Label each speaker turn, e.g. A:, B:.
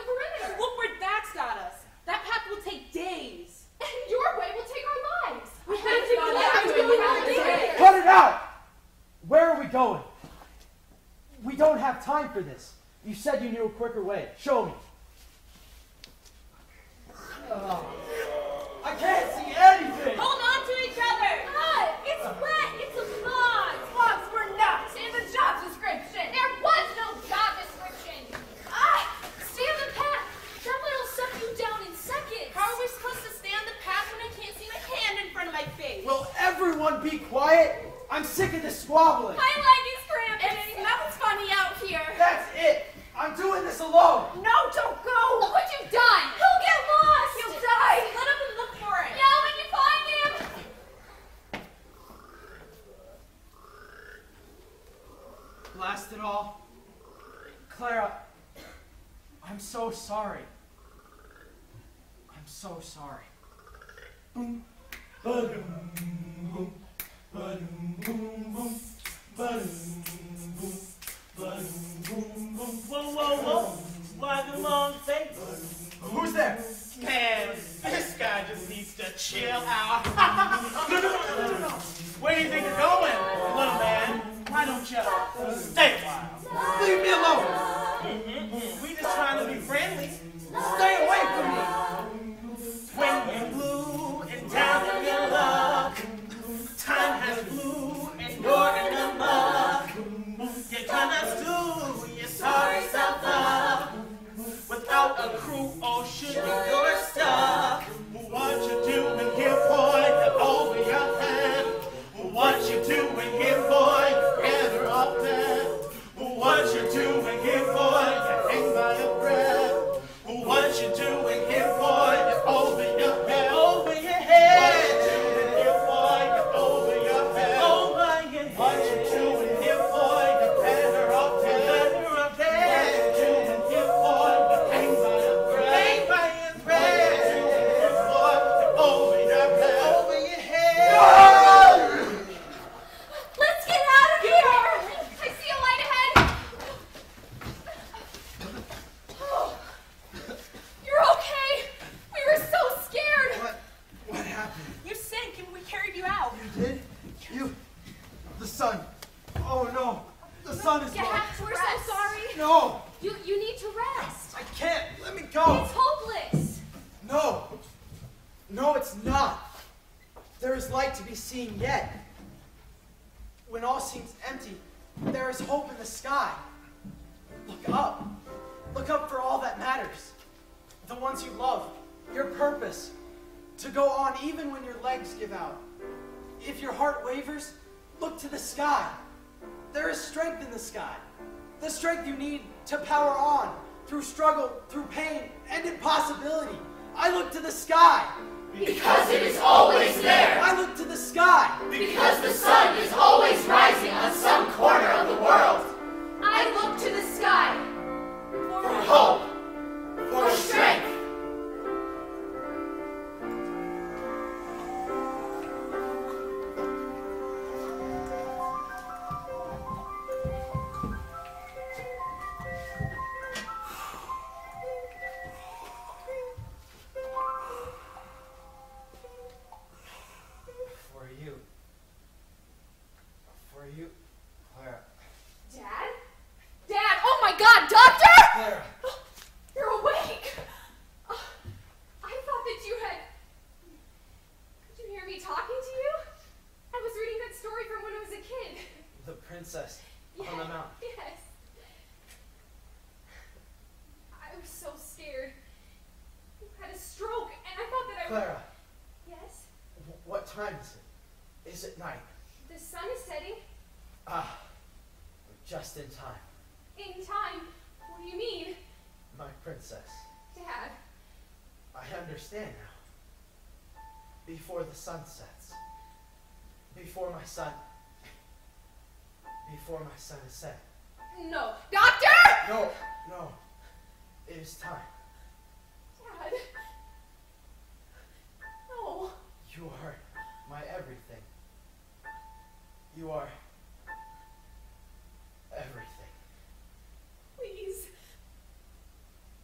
A: have time for this. You said you knew a quicker way. Show me. I can't see anything.
B: Hold on to each other! Look! It's wet! It's a log! Logs were not in the job description! There was no job description! Ah! Stay on the path! That way will suck you down in seconds! How are we supposed to stay on the path when I can't see my hand in front of my face?
A: Will everyone be quiet? I'm sick of this squabbling.
B: My leg is cramping! It's nothing's funny out here!
A: That's it. I'm doing this alone.
B: No, don't go! Look what you've done! He'll get lost! He'll die! Let up and look for it! Yeah, when you find him!
A: Blast it all. Clara, I'm so sorry. I'm so sorry. Boom. Ba-doom, boom. Ba-doom, boom, boom. Ba-doom, boom. Ba-doom, boom, boom.
C: Whoa, whoa, whoa! Why the long face?
A: Who's there?
C: Man, this guy just needs to chill out. no, no, no, no, no, no. Where do you think you're going, little man? Why don't you stay a while?
A: Leave me alone.
C: We just trying to be friendly.
A: Stay away from me.
C: When you're blue and down in your luck, time has blue and you're in the muck. You gonna do your sorry self up without a crew or should be your stuck. What you doing here, boy? You're over your head. What you doing here, boy? You're Ever up there. What you doing here, boy? You hang by your breath. What you doing here, boy? You're over your head. Over your head. What you doing here, boy? You're over your head. Over your head. What you doing here, boy? You're better up there. Better up there. What you doing here, boy? You hang by your breath. Hang by your breath. What you doing here, boy? You're over your head. Over your head.
B: Let's get out of here! I see a light ahead! Oh, you're okay! We were so scared!
A: What? What happened?
B: You sank and we carried you out.
A: You did? You? The sun. Oh no. The sun is
B: You
A: gone.
B: have to We're so sorry.
A: No.
B: You, you need to rest.
A: I can't. Let me go.
B: It's hopeless.
A: No. No, it's not. There is light to be seen yet. When all seems empty, there is hope in the sky. Look up. Look up for all that matters. The ones you love, your purpose. To go on even when your legs give out. If your heart wavers, look to the sky. There is strength in the sky. The strength you need to power on through struggle, through pain, and impossibility. I look to the sky.
D: Because it is always there.
A: I look to the sky.
D: Because the sun is always rising on some corner of the world.
B: I look to the sky.
D: For hope. For strength.
A: For you. For you. Clara.
B: Dad? Dad! Oh my god, Doctor!
A: Clara.
B: You're awake! Oh, I thought that you had. Could you hear me talking to you? I was reading that story from when I was a kid.
A: The princess.
B: Yes.
A: On the mountain.
B: Yes. I was so scared. You had a stroke, and I thought that I. was.
A: Clara.
B: Yes.
A: wh- What time is it? Is it night?
B: The sun is setting.
A: Ah. We're just in time.
B: In time. What do you mean,
A: My princess.
B: Dad?
A: I understand now. Before the sun sets. Before my son. Before my sun is set.
B: No, Doctor!
A: No, no. It is time.
B: Dad. No.
A: You are my everything. You are